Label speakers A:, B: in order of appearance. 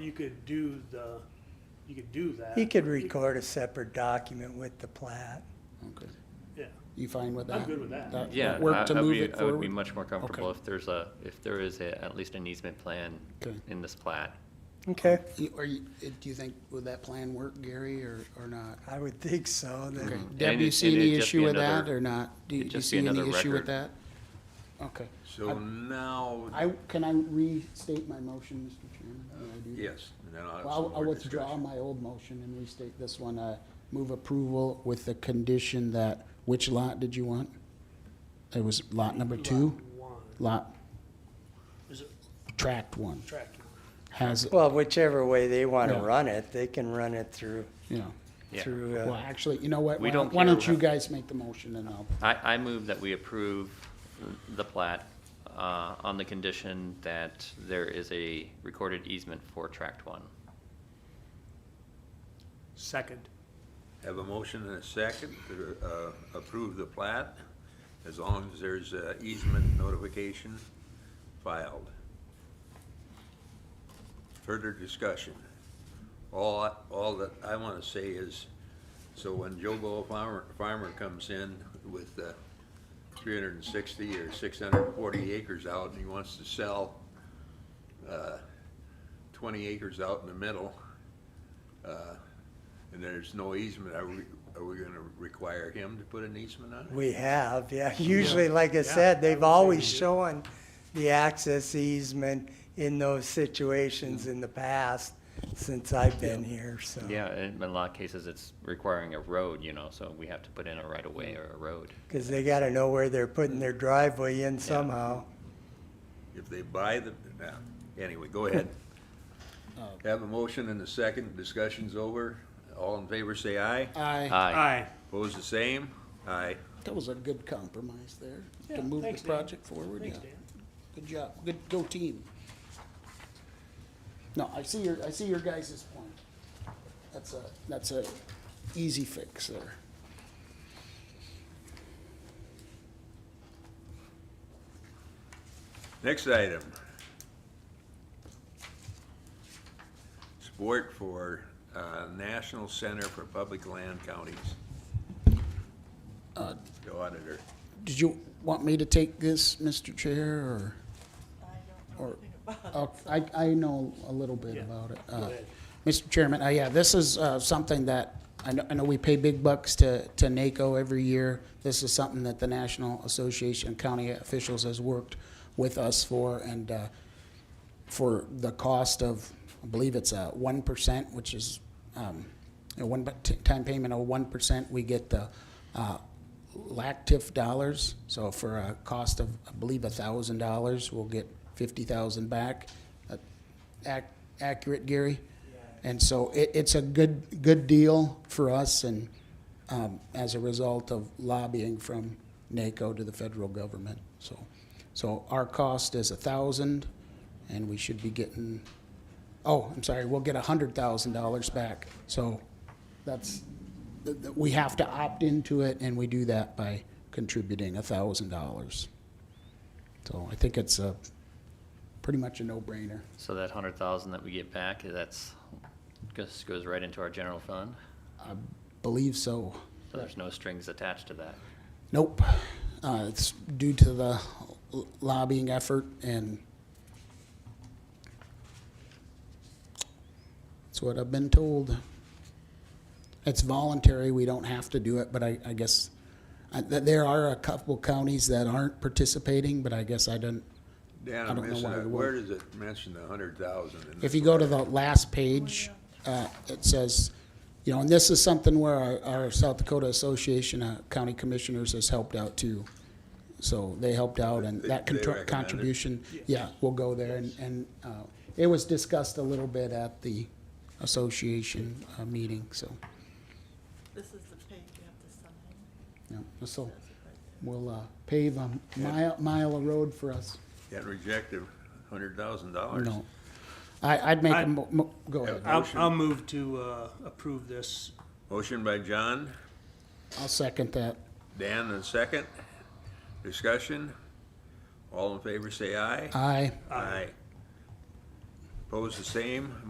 A: You could do the, you could do that.
B: He could record a separate document with the plat.
C: Okay.
A: Yeah.
C: You fine with that?
A: I'm good with that.
D: Yeah, I-
C: Work to
D: I'd
C: move
D: be-
C: it
D: I would be
C: forward?
D: much more comfortable if there's a, if there is a- at least an easement plan
C: Okay.
D: in this plat.
B: Okay,
C: You- Are you, eh, do you think, would that plan work, Gary, or, or not?
B: I would think so,
C: Okay.
B: then,
C: Deb,
D: And
C: you
D: it-
C: see
D: and
C: any
D: it'd just
C: issue
D: be
C: with that
D: another-
C: or not? Do you
D: it'd
C: do you
D: just be
C: see any
D: another
C: issue with that?
D: record.
C: Okay.
E: So now,
C: I, can I restate my motion, Mr. Chairman? May I do that?
E: yes, and then I'll have
C: Well,
E: some
C: I'll- I'll
E: more
C: withdraw
E: discussion.
C: my old motion and restate this one. Uh, Move approval with the condition that, which lot did you want? It was lot number two?
A: Lot One,
C: Lot,
A: is it
C: tract one,
A: tract one?
C: has,
B: well, whichever way they want to
C: Yeah.
B: run it, they can run it through,
C: you know.
D: Yeah.
B: through,
C: Well,
B: uh,
C: actually, you know what?
D: We
C: Why don't
D: don't
C: why
D: care
C: don't you
D: what-
C: guys make the motion and I'll,
D: I, I move that we approve the plat uh, on the condition that there is a recorded easement for tract one.
A: Second.
E: Have a motion and a second to uh, approve the plat, as long as there's uh, easement notification filed. Further discussion. All, I- all that I want to say is, so when Joe Bo Farmer, Farmer comes in with uh, 360 or 640 acres out, and he wants to sell uh, 20 acres out in the middle, uh, and there's no easement, are we, are we gonna require him to put an easement on it?
B: we have, yeah. Usually, like I
A: Yeah, I
B: said,
A: would
B: they've
A: say
B: always
A: we do.
B: shown the access easement in those situations in the past, since I've been here, so.
C: Oh.
D: Yeah, in a lot of cases, it's requiring a road, you know, so we have to put in a right-of-way or a road.
B: Because they got to know where they're putting their driveway in somehow.
E: If they buy the, nah, anyway, go ahead.
C: Uh,
E: Have a motion and a second, discussion's over. All in favor, say aye.
C: I,
D: Aye.
A: Aye.
E: Opposed, the same? Aye.
C: that was a good compromise there.
A: Yeah,
C: To move the
A: thanks, Dan.
C: project forward, yeah.
A: Thanks, Dan.
C: Good job. Good, go team. No, I see your, I see your guys' point. That's a, that's a easy fix there.
E: Next item. Support for, uh, National Center for Public Land Counties.
C: Uh,
E: The auditor.
C: Did you want me to take this, Mr. Chair, or? or- Oh, I, I know a little bit
A: Yeah,
C: about it.
A: go
C: Uh,
A: ahead.
C: Mr. Chairman, uh, yeah, this is, uh, something that, I know, I know we pay big bucks to, to NACO every year. This is something that the National Association of County Officials has worked with us for, and, uh, for the cost of, I believe it's a one percent, which is, um, a one-time payment of one percent, we get the, uh, LACTIF dollars. So for a cost of, I believe, a thousand dollars, we'll get fifty thousand back. Uh, ac- Accurate, Gary? And so it, it's a good, good deal for us and, um, as a result of lobbying from NACO to the federal government, so. So our cost is a thousand and we should be getting, oh, I'm sorry, we'll get a hundred thousand dollars back. So that's, th- th- we have to opt into it and we do that by contributing a thousand dollars. So I think it's a, pretty much a no-brainer.
D: So that hundred thousand that we get back, that's, just goes right into our general fund?
C: Believe so.
D: So there's no strings attached to that?
C: Nope. Uh, it's due to the l- lobbying effort and that's what I've been told. It's voluntary. We don't have to do it, but I, I guess I, th- there are a couple counties that aren't participating, but I guess I don't.
E: Dan,
C: I
E: I'm
C: don't know
E: missing,
C: why
E: it.
C: we
E: where
C: won't.
E: does it mention the hundred thousand?
C: If you go to the last page, uh, it says, you know, and this is something where our, our South Dakota Association of County Commissioners has helped out too. So they helped out and
E: They-
C: that
E: they
C: contr-
E: recommend it.
C: contribution, yeah, we'll go there and, and, uh, it was discussed a little bit at the association, uh, meeting, so,
F: This is the page you have to sign.
C: yeah, so
F: That's it right there.
C: we'll, uh, pave a mile, mile of road for us.
E: Can't reject the hundred thousand dollars.
C: No. I, I'd make
A: I-
C: a mo- mo- go ahead.
A: I'll,
E: Motion.
A: I'll move to, uh, approve this.
E: Motion by John,
C: I'll second that.
E: Dan and second. Discussion. All in favor, say aye.
C: Aye.
E: Aye. Opposed, the same.